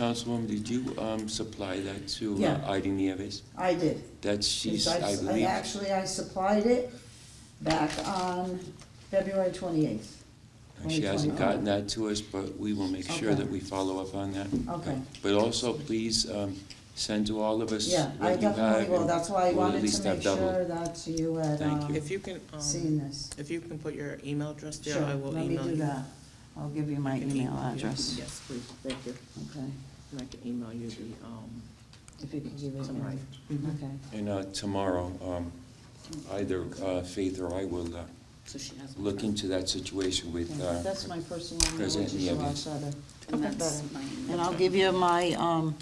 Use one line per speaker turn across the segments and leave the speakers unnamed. Councilwoman, did you um, supply that to uh,
Yeah.
Ida Nieves?
I did.
That's, she's,
Because
I
s-
believe,
Actually, I supplied it back on February twenty-eighth.
she hasn't gotten that to us, but we will make sure
Okay.
that we follow up on that.
Okay.
But also, please um, send to all of us
Yeah, I
what you have.
definitely will,
and
that's why
we'll
I
at
wanted
least
to
have
make
double.
sure that you had,
Thank
um,
you.
If you can, um,
seen this.
if you can put your email address there,
Sure,
I will
let me
email
do
you.
that. I'll give you my
I can
email
email you.
address.
Yes, please, thank you.
Okay,
And I can email you the, um,
if you can give it to me.
summary.
Okay,
And uh, tomorrow, um, either uh, Faith or I will uh,
So she has.
look into that situation with,
okay.
uh,
that's my personal email,
President
which is a lot
Nieves.
better.
And
Not
that's
better.
my
And I'll give you my, um,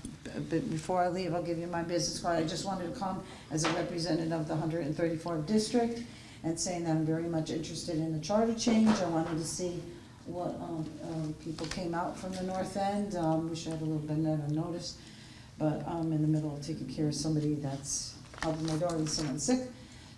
b- before I leave, I'll give you my business card. I just wanted to come as a representative of the hundred and thirty-fourth district and saying that I'm very much interested in the charter change. I wanted to see what, um, um, people came out from the north end. Um, we should have a little bit of notice. But I'm in the middle of taking care of somebody that's helping my daughter with someone sick.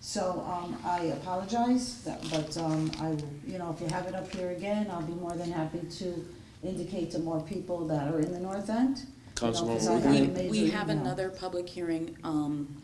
So, um, I apologize, that- but, um, I, will- you know, if you have it up here again, I'll be more than happy to indicate to more people that are in the north end.
Councilwoman
No, 'cause I
Woodward.
We,
haven't made
we
your
have
email.
another public hearing, um,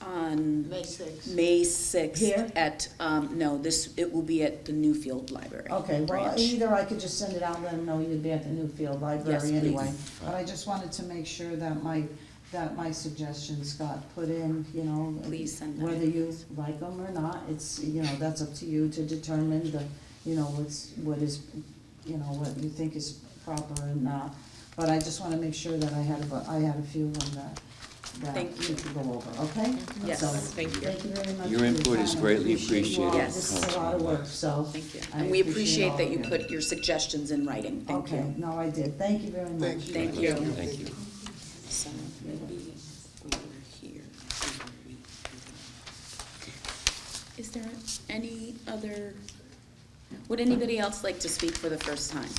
on
May sixth.
May sixth.
Here?
At, um, no, this, it will be at the Newfield Library.
Okay, well,
branch.
either I could just send it out, and let them know you'd be at the Newfield Library
Yes, please.
anyway. But I just wanted to make sure that my, that my suggestions got put in, you know.
Please send them.
Whether you like them or not, it's, you know, that's up to you to determine the, you know, what's, what is, you know, what you think is proper and not. But I just wanna make sure that I had, a- I had a few of them that, that
Thank
we could go over, okay?
Yes.
So,
Thank you.
Thank you very much.
Your
for
input is
time.
greatly
Appreciate you all.
appreciated,
This is a lot of
Councilwoman.
work, so.
Thank you.
I
And we
all
appreciate that you
of
put your suggestions in writing. Thank
Okay,
you.
no, I did, thank you very much.
Thank you.
Thank you.
Thank you.
So maybe over here. Is there any other, would anybody else like to speak for the first time?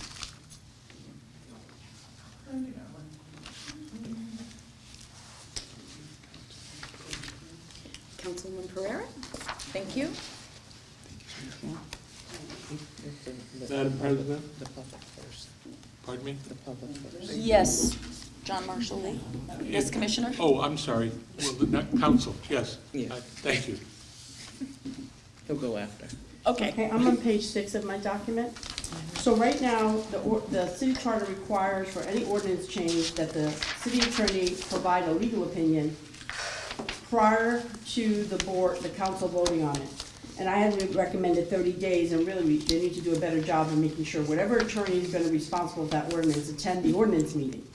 Councilman Pereira, thank you.
Madam President,
Mm-hmm. The public first,
pardon me?
the public first.
Yes, John Marshall Lee. Yes, Commissioner?
Oh, I'm sorry, well, the, not- council, yes.
Yeah.
Uh, Thank you.
He'll go after.
Okay.
Okay, I'm on page six of my document. So right now, the, or- the city charter requires for any ordinance change that the city attorney provide a legal opinion prior to the board, the council voting on it. And I had recommended thirty days, and really, we- they need to do a better job of making sure whatever attorney is gonna be responsible for that ordinance, attend the ordinance meeting.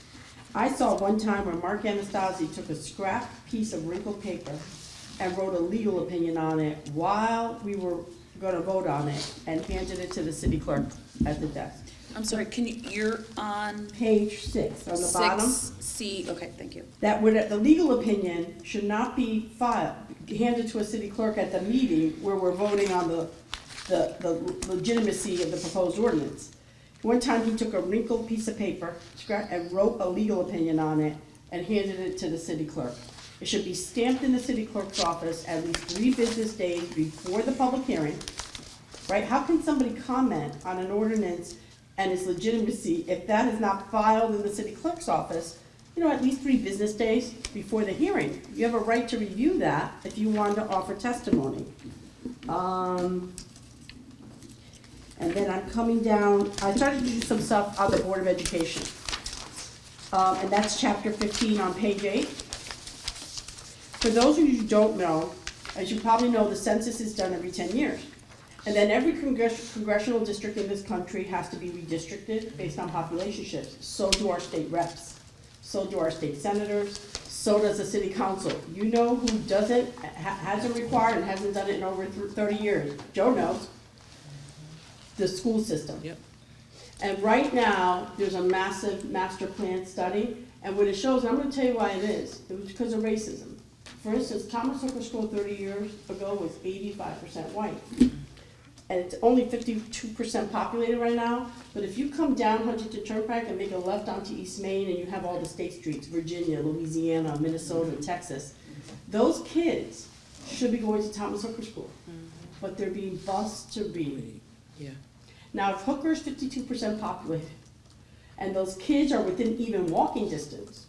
I saw one time where Mark Anastasi took a scrap piece of wrinkled paper and wrote a legal opinion on it while we were gonna vote on it, and handed it to the city clerk at the desk.
I'm sorry, can you, you're on
Page six, on the bottom.
Six C, okay, thank you.
that would, the legal opinion should not be filed, handed to a city clerk at the meeting where we're voting on the, the, the legitimacy of the proposed ordinance. One time he took a wrinkled piece of paper, scrap, and wrote a legal opinion on it and handed it to the city clerk. It should be stamped in the city clerk's office at least three business days before the public hearing right? How can somebody comment on an ordinance and its legitimacy if that is not filed in the city clerk's office, you know, at least three business days before the hearing? You have a right to review that if you want to offer testimony. Um, and then I'm coming down, I started to do some stuff on the Board of Education. Um, and that's chapter fifteen on page eight. For those of you who don't know, as you probably know, the census is done every ten years. And then every congress- congressional district in this country has to be redistricted based on population shifts. So do our state reps, so do our state senators, so does the city council. You know who doesn't, ha- hasn't required and hasn't done it in over th- thirty years? Joe knows. The school system.
Yep.
And right now, there's a massive master plan study, and what it shows, and I'm gonna tell you why it is, it was because of racism. For instance, Thomas Hooker School thirty years ago was eighty-five percent white. And it's only fifty-two percent populated right now, but if you come down Huntington Turnpike and make a left onto East Main and you have all the state streets, Virginia, Louisiana, Minnesota, Texas, those kids should be going to Thomas Hooker School, but they're being bused to Reed.
Yeah.
Now, if Hooker's fifty-two percent populated, and those kids are within even walking distance.